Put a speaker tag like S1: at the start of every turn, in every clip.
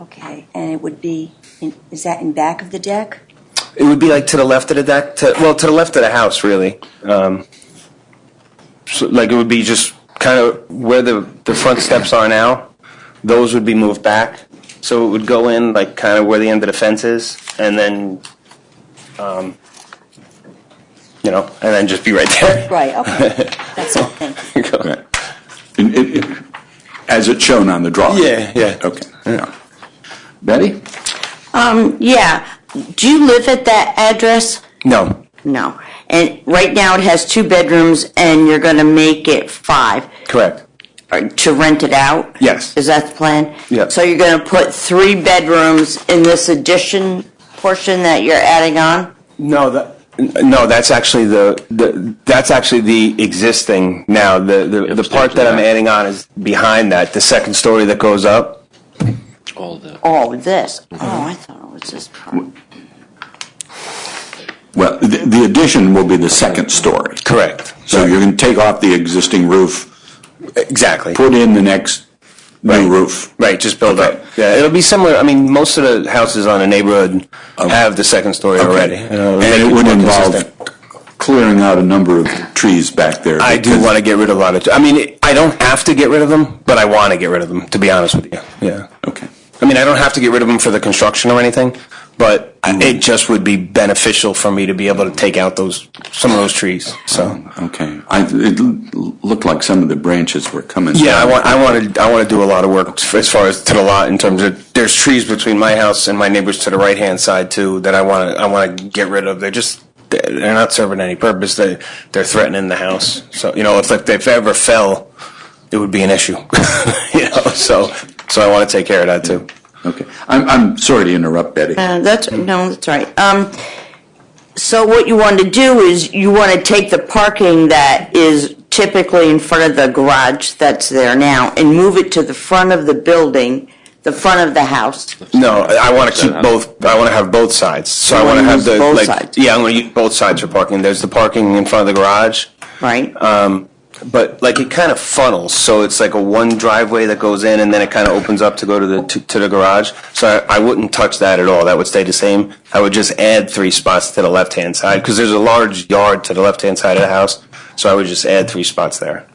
S1: Okay, and it would be, in- is that in back of the deck?
S2: It would be like to the left of the deck, to, well, to the left of the house, really. Um, so, like it would be just kind of where the, the front steps are now, those would be moved back. So it would go in like kind of where the end of the fence is, and then, um, you know, and then just be right there.
S1: Right, okay. That's all, thank you.
S3: Okay. And it- it- As it's shown on the drawing?
S2: Yeah, yeah.
S3: Okay, yeah. Betty?
S4: Yeah. Do you live at that address?
S2: No,
S4: No. And right now it has two bedrooms and you're going to make it five
S2: correct.
S4: or to rent it out?
S2: Yes.
S4: Is that the plan?
S2: Yeah.
S4: So you're going to put three bedrooms in this addition portion that you're adding on?
S2: No, that. No, that's actually the, the that's actually the existing now. The the, the part that I'm adding on is behind that, the second story that goes up.
S5: all the
S4: Oh, this. Oh, I thought it was this part.
S3: Well, the the addition will be the second story.
S2: Correct.
S3: So you're going to take off the existing roof,
S2: Exactly.
S3: put in the next
S2: Right.
S3: new roof.
S2: Right, just build
S3: Okay.
S2: up. Yeah, it'll be similar. I mean, most of the houses on the neighborhood
S3: Okay.
S2: have the second story already.
S3: Oh. Okay.
S2: Uh,
S3: And it
S2: it's
S3: would
S2: more
S3: involve
S2: consistent.
S3: clearing out a number of trees back there.
S2: I do
S3: because-
S2: want to get rid of a lot of. I mean, I don't have to get rid of them, but I want to get rid of them. To be honest with you. Yeah.
S3: Okay.
S2: I mean, I don't have to get rid of them for the construction or anything, but I-
S3: Mm.
S2: it just would be beneficial for me to be able to take out those some of those trees. So
S3: Okay. I, it l- looked like some of the branches were coming.
S2: yeah, I
S3: down.
S2: want I want to I want to do a lot of work as far as to the lot in terms of there's trees between my house and my neighbors to the right hand side too that I want to I want to get rid of. They're just they're not serving any purpose. They they're threatening the house. So you know, if like they've ever fell, it would be an issue. you know, so so I want to take care of that too.
S3: Okay. I'm, I'm sorry to interrupt, Betty.
S4: Uh, that's no, that's all right. Um, so what you want to do is you want to take the parking that is typically in front of the garage that's there now and move it to the front of the building, the front of the house.
S2: No, I want to keep both. I want to have both sides. So I want to
S4: wanna
S2: have
S4: use
S2: the
S4: both
S2: like.
S4: sides.
S2: Yeah, I'm going to use both sides for parking. There's the parking in front of the garage,
S4: Right.
S2: but like it kind of funnels. So it's like a one driveway that goes in, and then it kind of opens up to go to the to, to the garage. So I, I wouldn't touch that at all. That would stay the same. I would just add three spots to the left hand side because there's a large yard to the left hand side of the house. So I would just add three spots there.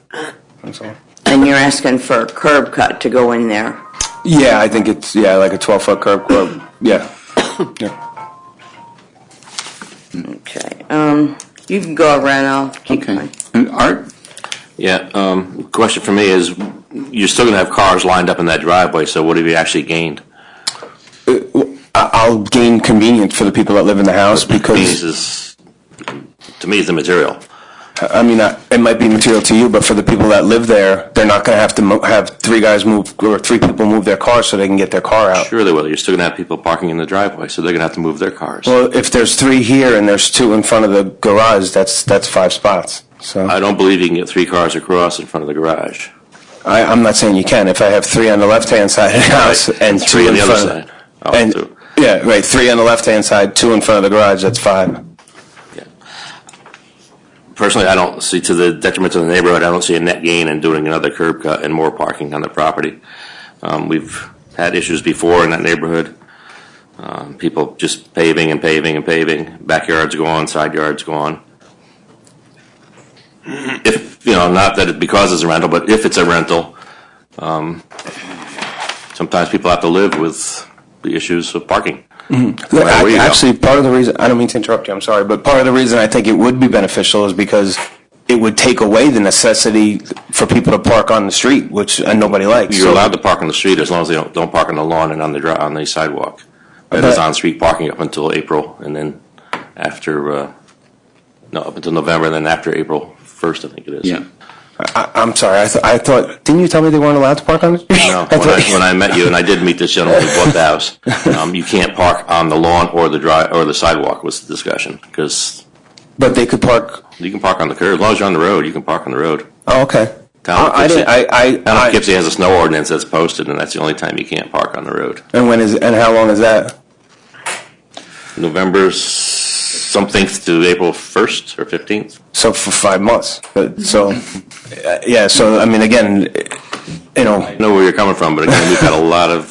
S2: That's all.
S4: and you're asking for a curb cut to go in there.
S2: Yeah, I think it's yeah like a 12 foot curb. curb. Yeah. yeah.
S4: Okay. Um, you can go around. I'll keep
S3: Okay.
S4: going.
S3: And Art?
S5: Yeah, um, question for me is, you're still gonna have cars lined up in that driveway, so what have you actually gained?
S2: I- I'll gain convenience for the people that live in the house
S5: This
S2: because
S5: is, to me, is the material.
S2: I mean I, it might be material to you, but for the people that live there, they're not going to have to mo- have three guys move or three people move their car so they can get their car out.
S5: Surely will, you're still gonna have people parking in the driveway, so they're gonna have to move their cars.
S2: Well, if there's three here and there's two in front of the garage, that's that's five spots. So
S5: I don't believe you can get three cars across in front of the garage.
S2: I, I'm not saying you can. If I have three on the left hand side of the house and
S5: Three
S2: two
S5: on
S2: in
S5: the other
S2: front,
S5: side.
S2: of-
S5: Oh,
S2: and
S5: two.
S2: yeah, right, three on the left hand side, two in front of the garage. That's five.
S5: Yeah. Personally, I don't see, to the detriment of the neighborhood, I don't see a net gain in doing another curb cut and more parking on the property. Um, We've had issues before in that neighborhood. Um, People just paving and paving and paving, backyards go on, side yards go on. If, you know, not that it because it's a rental, but if it's a rental, um, sometimes people have to live with the issues of parking.
S2: Look,
S5: Well, there
S2: I-
S5: you go.
S2: actually, part of the reason I don't mean to interrupt you. I'm sorry, but part of the reason I think it would be beneficial is because it would take away the necessity for people to park on the street, which uh, nobody likes.
S5: You're
S2: So-
S5: allowed to park on the street as long as they don't, don't park on the lawn and on the dri- on the sidewalk. That is
S2: But-
S5: on-street parking up until April, and then after, uh, no, up until November, and then after April first, I think it is.
S2: I, I'm sorry. I, th- I thought didn't you tell me they weren't allowed to park on the street?
S5: No,
S2: I
S5: when I,
S2: thought-
S5: when I met you, and I did meet this gentleman who bought the house, um, you can't park on the lawn or the dri- or the sidewalk was the discussion, because
S2: but they could park.
S5: you can park on the curb, as long as you're on the road, you can park on the road.
S2: Oh, okay.
S5: Town of
S2: I, I
S5: Poughkeepsie-
S2: didn't. I. I,
S5: Town
S2: I-
S5: of Poughkeepsie has a snow ordinance that's posted, and that's the only time you can't park on the road.
S2: and when is and how long is that?
S5: November s- something to April first or fifteenth.
S2: So for five months. But, so uh, yeah. So I mean, again, you know.
S5: know where you're coming from, but again, we've had a lot of